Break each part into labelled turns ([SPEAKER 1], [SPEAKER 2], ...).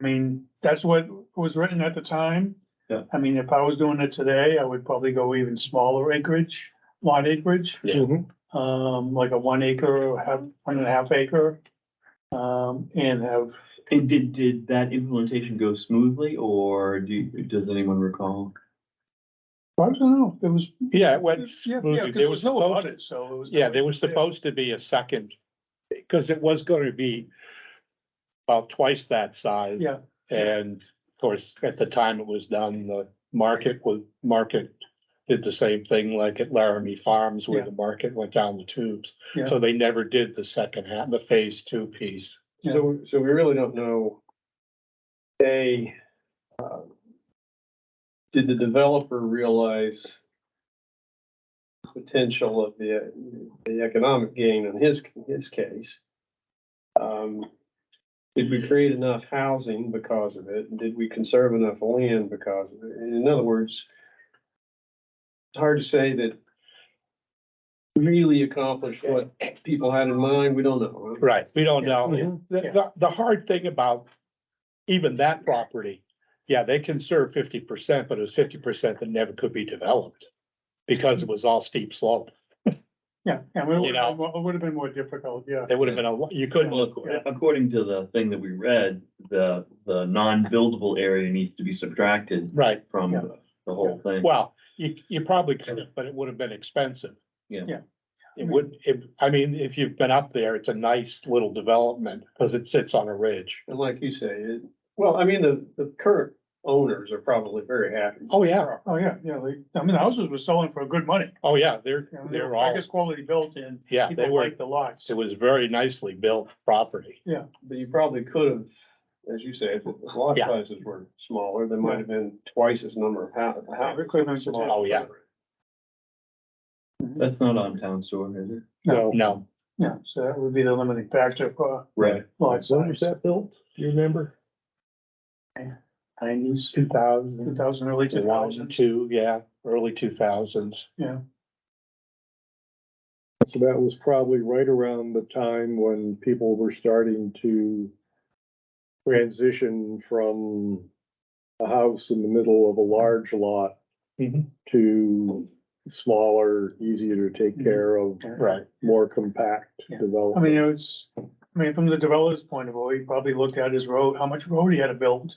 [SPEAKER 1] I mean, that's what was written at the time.
[SPEAKER 2] Yeah.
[SPEAKER 1] I mean, if I was doing it today, I would probably go even smaller acreage, lot acreage,
[SPEAKER 2] Yeah.
[SPEAKER 3] Mhm.
[SPEAKER 1] um, like a one acre or half, one and a half acre. Um, and have,
[SPEAKER 2] And did, did that implementation go smoothly or do, you- does anyone recall?
[SPEAKER 1] I don't know, it was,
[SPEAKER 3] Yeah, it went
[SPEAKER 1] yeah, yeah,
[SPEAKER 3] smoothly.
[SPEAKER 1] 'cause
[SPEAKER 3] There was
[SPEAKER 1] no
[SPEAKER 3] supposed,
[SPEAKER 1] audit, so it was.
[SPEAKER 3] yeah, there was supposed to be a second, because it was gonna be about twice that size.
[SPEAKER 1] Yeah.
[SPEAKER 3] And of course, at the time it was done, the market was, market did the same thing like at Laramie Farms where
[SPEAKER 1] Yeah.
[SPEAKER 3] the market went down the tubes.
[SPEAKER 1] Yeah.
[SPEAKER 3] So they never did the second half, the phase two piece.
[SPEAKER 1] Yeah.
[SPEAKER 4] So, so we really don't know. A. uh, Did the developer realize? Potential of the, the economic gain in his, his case? Um, did we create enough housing because of it? And Did we conserve enough land because of it? In other words. It's hard to say that. Really accomplished what people had in mind. We don't know.
[SPEAKER 3] Right, we don't know.
[SPEAKER 4] Mhm.
[SPEAKER 1] mm-hmm,
[SPEAKER 3] The, the, the hard thing about even that property, yeah, they can serve fifty percent, but it was fifty percent that never could be developed. Because
[SPEAKER 1] Mm-hmm.
[SPEAKER 3] it was all steep slope.
[SPEAKER 1] Yeah, yeah, it would,
[SPEAKER 3] You know.
[SPEAKER 1] it would have been more difficult, yeah.
[SPEAKER 3] There would have been a, lo- you couldn't,
[SPEAKER 2] Well, ac- according to the thing that we read, the, the non-buildable area needs to be subtracted
[SPEAKER 3] right,
[SPEAKER 2] from
[SPEAKER 1] Yeah.
[SPEAKER 2] the whole thing.
[SPEAKER 3] well, you, you probably could have, but it would have been expensive.
[SPEAKER 2] Yeah.
[SPEAKER 1] Yeah.
[SPEAKER 3] It would, it, I mean, if you've been up there, it's a nice little development, because it sits on a ridge.
[SPEAKER 4] And like you say, it, well, I mean, the, the current owners are probably very happy.
[SPEAKER 3] Oh, yeah,
[SPEAKER 1] Oh, yeah, yeah, like, I mean, the houses were selling for good money.
[SPEAKER 3] oh, yeah, they're,
[SPEAKER 1] you know,
[SPEAKER 3] they're
[SPEAKER 1] I
[SPEAKER 3] all,
[SPEAKER 1] guess quality built and
[SPEAKER 3] yeah, they
[SPEAKER 1] people
[SPEAKER 3] were,
[SPEAKER 1] liked the lots.
[SPEAKER 3] it was very nicely built property.
[SPEAKER 4] But you probably could have, as you say, if the lot
[SPEAKER 3] Yeah.
[SPEAKER 4] sizes were smaller, there might have been twice as number of hou- houses.
[SPEAKER 1] it could have been-
[SPEAKER 4] Smaller.
[SPEAKER 3] Oh, yeah.
[SPEAKER 2] That's not on town store, is it?
[SPEAKER 1] No.
[SPEAKER 3] No,
[SPEAKER 1] Yeah, so that would be the limiting factor for
[SPEAKER 2] Right.
[SPEAKER 1] lot size.
[SPEAKER 4] that built? Do you remember?
[SPEAKER 1] Nineties,
[SPEAKER 3] two
[SPEAKER 1] two
[SPEAKER 3] thousand,
[SPEAKER 1] thousand, early two
[SPEAKER 3] one,
[SPEAKER 1] thousands.
[SPEAKER 3] two, yeah, early two thousands.
[SPEAKER 5] So that was probably right around the time when people were starting to transition from a house in the middle of a large lot
[SPEAKER 3] Mhm.
[SPEAKER 5] to smaller, easier to take care of,
[SPEAKER 3] Right,
[SPEAKER 5] more compact
[SPEAKER 1] Yeah. I mean,
[SPEAKER 5] development.
[SPEAKER 1] it was, I mean, from the developer's point of view, he probably looked at his road, how much road he had to build.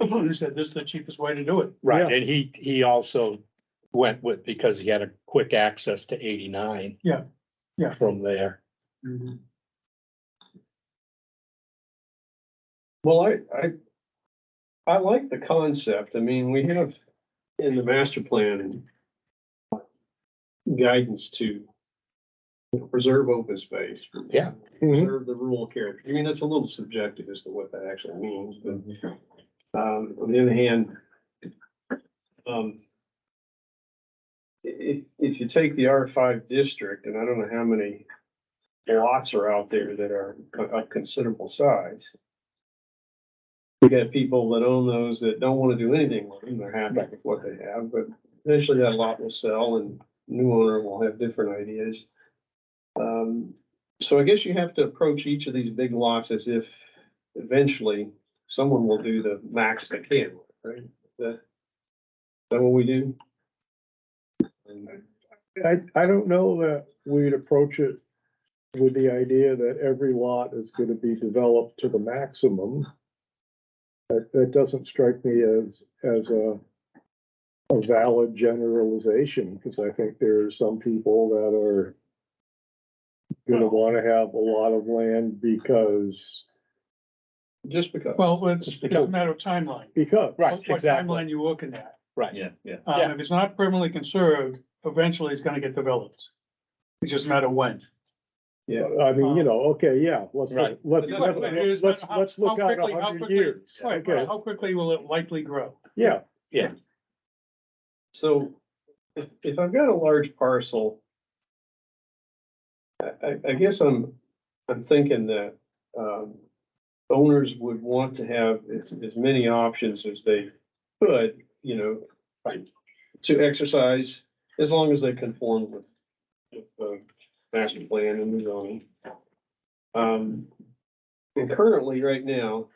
[SPEAKER 1] He said, this is the cheapest way to do it.
[SPEAKER 3] right, and he, he also went with, because he had a quick access to eighty-nine.
[SPEAKER 1] Yeah, yeah.
[SPEAKER 3] From there,
[SPEAKER 4] Well, I, I, I like the concept. I mean, we have in the master plan and guidance to you know, preserve open space.
[SPEAKER 3] Yeah.
[SPEAKER 5] Mhm.
[SPEAKER 4] Preserve the rural character. I mean, that's a little subjective as to what that actually means, but um, on the other hand, um, i- if, if you take the R five district, and I don't know how many lots are out there that are co- of considerable size. You got people that own those that don't wanna do anything with them, they're happy with what they have, but eventually that lot will sell and new owner will have different ideas. Um, so I guess you have to approach each of these big lots as if eventually someone will do the max they can, right? Is that, is that what we do?
[SPEAKER 5] I, I don't know that we'd approach it with the idea that every lot is gonna be developed to the maximum. That, that doesn't strike me as, as a, a valid generalization, because I think there are some people that are gonna wanna have a lot of land because,
[SPEAKER 4] Just because.
[SPEAKER 1] Well, it's it's a matter of timeline.
[SPEAKER 5] because.
[SPEAKER 3] Right,
[SPEAKER 1] What
[SPEAKER 3] exactly.
[SPEAKER 1] Timeline you're looking at.
[SPEAKER 3] right,
[SPEAKER 2] Yeah, yeah.
[SPEAKER 1] Um,
[SPEAKER 3] Yeah.
[SPEAKER 1] if it's not permanently conserved, eventually it's gonna get developed. It's just a matter of when.
[SPEAKER 5] I mean, you know, okay, yeah, let's,
[SPEAKER 3] Right.
[SPEAKER 5] look-
[SPEAKER 1] But
[SPEAKER 5] let's,
[SPEAKER 1] the question is,
[SPEAKER 5] let's, let's,
[SPEAKER 1] how-
[SPEAKER 5] let's look
[SPEAKER 1] how
[SPEAKER 5] out
[SPEAKER 1] quickly-
[SPEAKER 5] a
[SPEAKER 1] how
[SPEAKER 5] hundred
[SPEAKER 1] quickly-
[SPEAKER 5] years.
[SPEAKER 1] Right,
[SPEAKER 5] Okay.
[SPEAKER 1] right, how quickly will it likely grow?
[SPEAKER 5] Yeah,
[SPEAKER 4] So if, if I've got a large parcel, I, I, I guess I'm, I'm thinking that, um, owners would want to have as, as many options as they could, you know,
[SPEAKER 3] Right.
[SPEAKER 4] to exercise as long as they conform with, with the master plan and the zoning. Um, and currently, right now,